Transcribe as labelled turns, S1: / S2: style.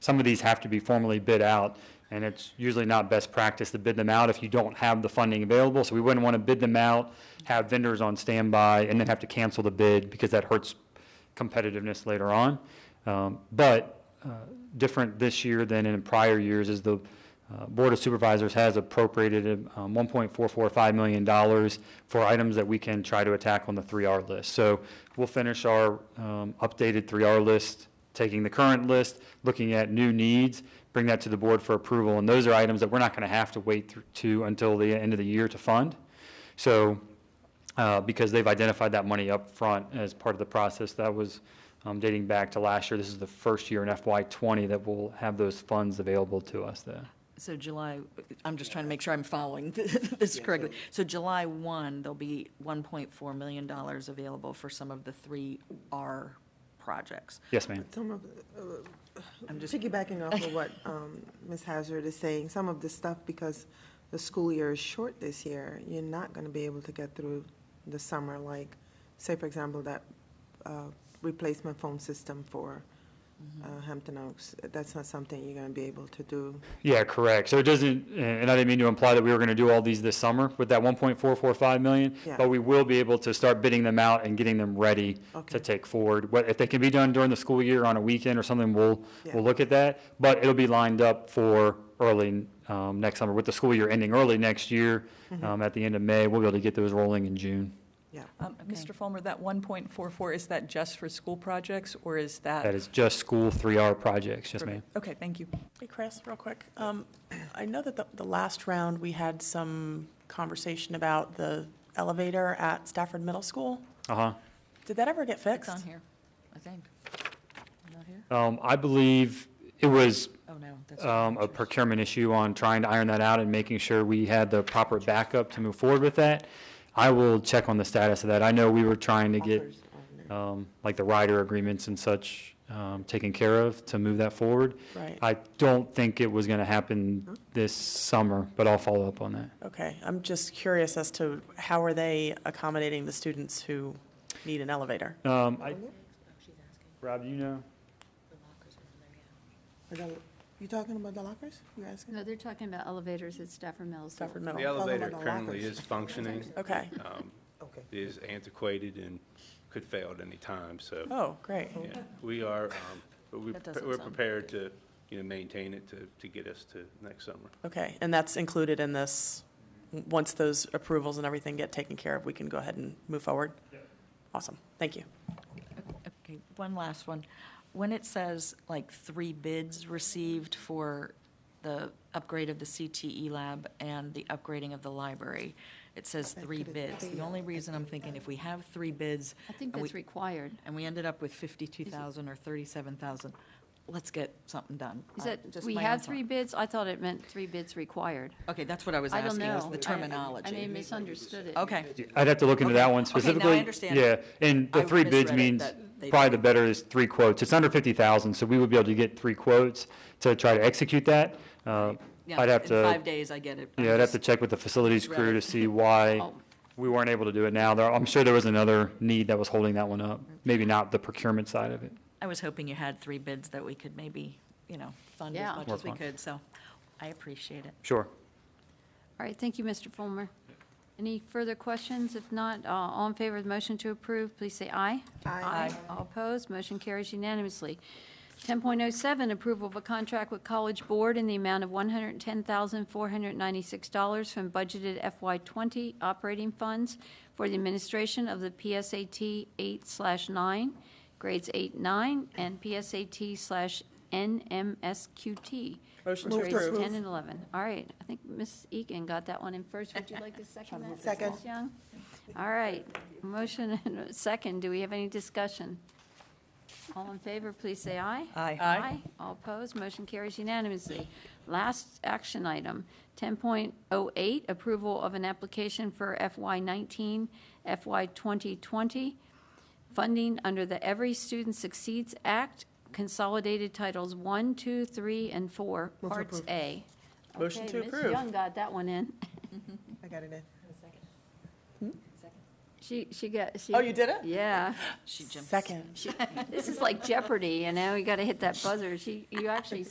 S1: some of these have to be formally bid out, and it's usually not best practice to bid them out if you don't have the funding available. So we wouldn't want to bid them out, have vendors on standby, and then have to cancel the bid because that hurts competitiveness later on. Um, But uh, different this year than in prior years is the uh, Board of Supervisors has appropriated um, $1.445 million for items that we can try to attack on the 3R list. So we'll finish our um, updated 3R list, taking the current list, looking at new needs, bring that to the board for approval. And those are items that we're not going to have to wait through to until the end of the year to fund. So uh, because they've identified that money up front as part of the process. That was um, dating back to last year. This is the first year in FY '20 that we'll have those funds available to us there.
S2: So July, I'm just trying to make sure I'm following this correctly. So July 1, there'll be $1.4 million available for some of the 3R projects.
S1: Yes, ma'am.
S3: Some of, uh,
S2: I'm just-
S3: piggybacking off of what um, Ms. Hazard is saying, some of the stuff, because the school year is short this year, you're not going to be able to get through the summer, like, say, for example, that uh, replacement phone system for uh, Hampton Oaks, that's not something you're going to be able to do.
S1: Yeah, correct. So it doesn't, and I didn't mean to imply that we were going to do all these this summer with that 1.445 million,
S3: Yeah.
S1: but we will be able to start bidding them out and getting them ready to
S3: Okay.
S1: take forward. What, if they can be done during the school year on a weekend or something, we'll,
S3: Yeah.
S1: we'll look at that. But it'll be lined up for early um, next summer. With the school year ending early next year,
S3: Mm-hmm.
S1: um, at the end of May, we'll be able to get those rolling in June.
S3: Yeah.
S4: Um, Mr. Fulmer, that 1.44, is that just for school projects, or is that?
S1: That is just school 3R projects, yes, ma'am.
S4: Okay, thank you.
S5: Hey, Chris, real quick. Um, I know that the, the last round, we had some conversation about the elevator at Stafford Middle School.
S1: Uh-huh.
S5: Did that ever get
S2: It's
S5: fixed?
S2: on here, I think. Not here?
S1: Um, I believe it was
S2: Oh, no. that's
S1: um, a procurement issue on trying to iron that out and making sure we had the proper backup to move forward with that. I will check on the status of that. I know we were trying to get,
S3: Offers on there.
S1: um, like the rider agreements and such, um, taken care of to move that forward.
S5: Right.
S1: I don't think it was going to happen this summer, but I'll follow up on that.
S5: Okay, I'm just curious as to how are they accommodating the students who need an elevator?
S1: Um, I, Rob, you know?
S3: Are the- You talking about the lockers? You asking?
S6: No, they're talking about elevators at Stafford Mills.
S5: Stafford
S7: The
S5: Middle?
S7: elevator
S3: about the
S7: currently
S3: lockers.
S7: is functioning,
S5: Okay.
S7: um,
S3: Okay.
S7: is antiquated and could fail at any time, so,
S5: Oh, great.
S7: yeah. We are, um, but we-
S2: That doesn't
S7: we're
S2: sound
S7: prepared to, you know, maintain it to, to get us to next summer.
S5: Okay, and that's included in this, w- once those approvals and everything get taken care of, we can go ahead and move forward? Awesome, thank you.
S2: Okay, one last one. When it says like three bids received for the upgrade of the CTE lab and the upgrading of the library, it says three bids. The only reason I'm thinking, if we have three bids.
S6: I think
S2: and we-
S6: that's required.
S2: And we ended up with fifty-two thousand or thirty-seven thousand, let's get something done.
S6: Is
S2: I-
S6: that,
S2: just
S6: we
S2: my own
S6: had three
S2: thought.
S6: bids? I thought it meant three bids required.
S2: Okay, that's what I was
S6: I don't
S2: asking,
S6: know.
S2: is
S6: I-
S2: the terminology.
S6: I may have misunderstood it.
S2: Okay,
S1: I'd have to look into that one
S2: Okay, now I
S1: specifically.
S2: understand.
S1: Yeah, and
S2: I
S1: the three bids
S2: misread it,
S1: means
S2: that they-
S1: probably the better is three quotes. It's under 50,000, so we would be able to get three quotes to try to execute that. Uh,
S2: yeah,
S1: I'd have
S2: in
S1: to,
S2: five days, I get it. I'm
S1: yeah, I'd have
S2: just-
S1: to check with the facilities
S2: Right.
S1: crew to see why
S6: Oh.
S1: we weren't able to do it now. There, I'm sure there was another need that was holding that one up, maybe not the procurement side of it.
S2: I was hoping you had three bids that we could maybe, you know, fund as
S6: Yeah.
S2: much
S1: Work
S2: as we
S1: on.
S2: could, so I appreciate it.
S1: Sure.
S6: All right, thank you, Mr. Fulmer. Any further questions? If not, uh, all in favor of the motion to approve, please say aye. Aye. All opposed, motion carries unanimously. 10.07, approval of a contract with College Board in the amount of $110,496 from budgeted FY20 operating funds for the administration of the PSAT 8/9, grades 8, 9, and PSAT/NMSQT.
S5: Motion to
S6: Grades
S5: approve.
S6: 10 and 11. All right, I think Ms. Egan got that one in first. Would you like to second that?
S3: Second.
S6: Ms. Young? All right, motion and a second. Do we have any discussion? All in favor, please say aye.
S2: Aye.
S6: Aye. All opposed, motion carries unanimously. Last action item, 10.08, approval of an application for FY19, FY 2020 funding under the Every Student Succeeds Act, consolidated titles 1, 2, 3, and 4, Parts A.
S5: Motion
S6: Okay,
S5: to
S6: Ms.
S5: approve.
S6: Young got that one in.
S3: I got it in.
S6: She, she got, she.
S5: Oh, you did it?
S6: Yeah.
S2: She jumped.
S5: Second.
S6: This is like Jeopardy, you know, you got to hit that buzzer. She, you actually